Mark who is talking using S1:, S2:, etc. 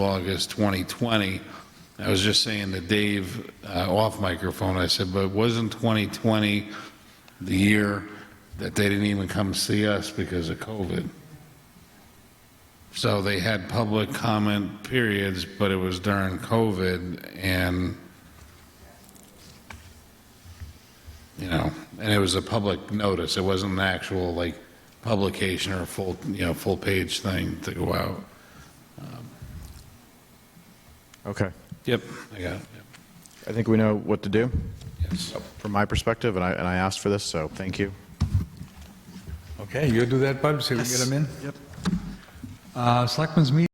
S1: August 2020. I was just saying to Dave, uh, off microphone, I said, but wasn't 2020 the year that they didn't even come see us because of COVID? So they had public comment periods, but it was during COVID, and, you know, and it was a public notice. It wasn't an actual, like, publication or a full, you know, full-page thing to go out.
S2: Okay.
S1: Yep. I got it.
S2: I think we know what to do
S1: Yes.
S2: from my perspective, and I, and I asked for this, so thank you.
S3: Okay, you'll do that, Bud, so we can get them in? Yep. Selectmen's meeting